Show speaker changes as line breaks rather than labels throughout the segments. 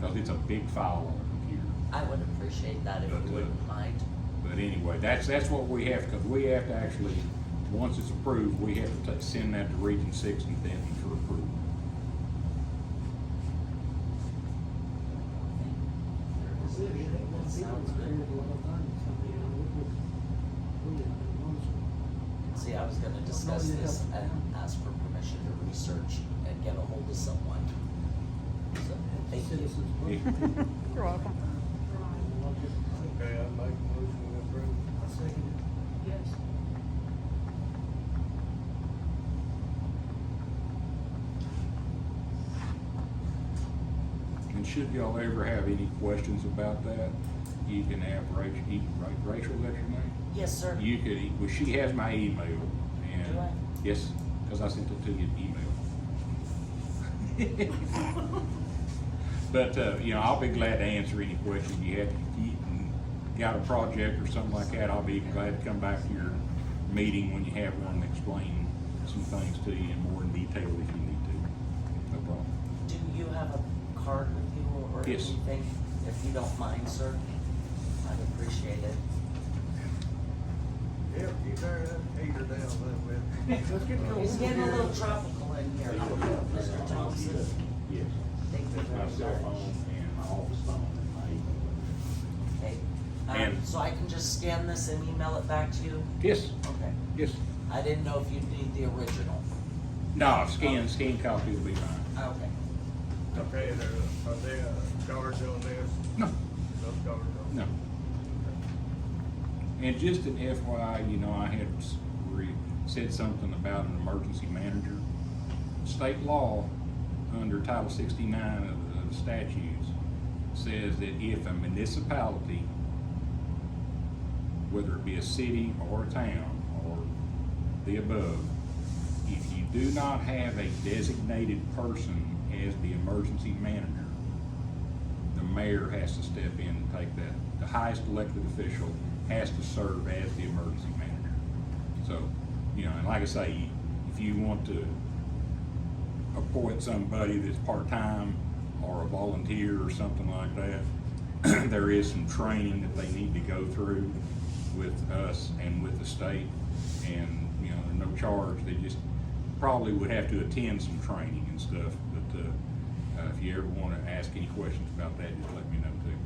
because it's a big file on the computer.
I would appreciate that if
But,
you
uh,
wouldn't mind.
But anyway, that's, that's what we have, because we have to actually, once it's approved, we have to ta- send that to Region Six and then for approval.
Sounds good. See, I was gonna discuss this and ask for permission to research and get a hold of someone. So, thank you.
You're welcome.
Okay, I make a motion to approve.
Yes.
And should y'all ever have any questions about that, you can have Rachel, you- Ra- Rachel, that's your name?
Yes, sir.
You could, e- well, she has my email
Do I?
and, yes, because I sent it to you in email. But, uh, you know, I'll be glad to answer any questions you have. If you got a project or something like that, I'll be glad to come back to your meeting when you have one and explain some things to you in more detail if you need to. No problem.
Do you have a card with you or
Yes.
anything? If you don't mind, sir, I'd appreciate it.
Yep, you turn that heater down a little bit.
It's getting a little tropical in here, Mr. Thompson.
Yes.
Thank you
My cell
very much.
phone and my office phone and my email.
Okay. Um,
And-
so I can just scan this and email it back to you?
Yes,
Okay.
yes.
I didn't know if you'd need the original.
No, scan, scan copy will be fine.
Okay.
Okay, there, are there uh, charge on this?
No,
No charge on?
no. And just an FYI, you know, I had s- re- said something about an emergency manager. State law, under Title sixty-nine of the- of the statutes, says that if a municipality, whether it be a city or a town or the above, if you do not have a designated person as the emergency manager, the mayor has to step in and take that. The highest elected official has to serve as the emergency manager. So, you know, and like I say, if you want to appoint somebody that's part-time or a volunteer or something like that, there is some training that they need to go through with us and with the state. And, you know, there's no charge, they just probably would have to attend some training and stuff. But, uh, uh, if you ever wanna ask any questions about that, just let me know too.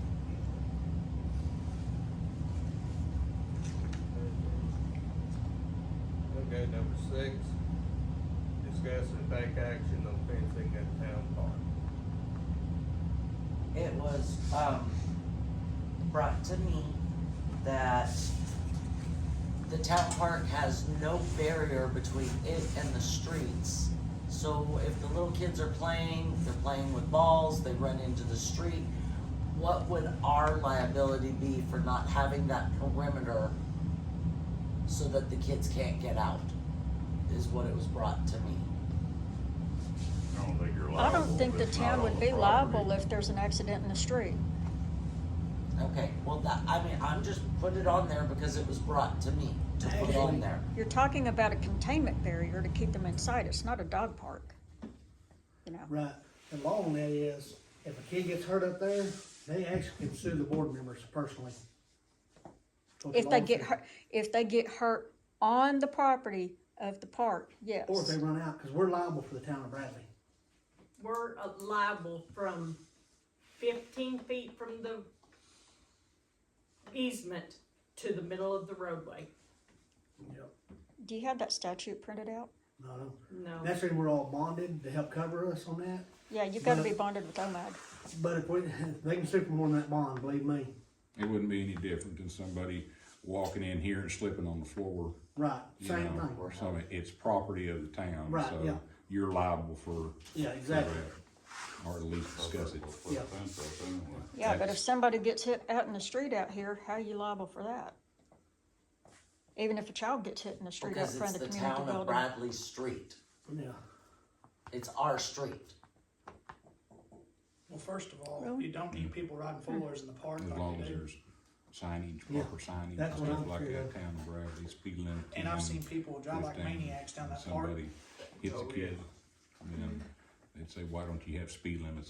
Okay, number six, discuss and take action on fencing at town park.
It was, um, brought to me that the town park has no barrier between it and the streets. So if the little kids are playing, they're playing with balls, they run into the street, what would our liability be for not having that perimeter so that the kids can't get out, is what it was brought to me.
I don't think you're
I don't think the town would be liable if there's an accident in the street.
Okay, well, that, I mean, I'm just put it on there because it was brought to me to put on there.
You're talking about a containment barrier to keep them inside. It's not a dog park. You know,
Right, the law on that is, if a kid gets hurt up there, they actually can sue the board members personally. So
if
the
they
law-
get hurt, if they get hurt on the property of the park, yes.
Or if they run out, cause we're liable for the town of Bradley.
We're uh, liable from fifteen feet from the easement to the middle of the roadway.
Yep.
Do you have that statute printed out?
No, no.
No.
That's when we're all bonded to help cover us on that,
Yeah, you've gotta be
No.
bonded with OMAD.
but if we, they can sue for more than that bond, believe me.
It wouldn't be any different than somebody walking in here and slipping on the floor.
Right,
you
same
know,
thing.
Or something, it's property of the town,
Right, yeah.
so you're liable for.
Yeah, exactly.
for that, Or at least discuss it.
Yeah.
Yeah, but if
That's-
somebody gets hit out in the street out here, how are you liable for that? Even if a child gets hit in the street out
Because it's
front of
the
the community
town of
building.
Bradley Street.
Yeah,
It's our street.
Well, first of all,
Really?
you don't need people riding four wheelers in the park
As
like
long
you
as
do.
there's signage,
Yeah,
proper signage, and
that's what
stuff
I'm
like
sure
that,
of.
town of Bradley, speed limit.
And I've
10,
seen people drive like
15,
maniacs down that park.
Somebody hits a
Oh, yeah.
kid, and they'd say, why don't you have speed limits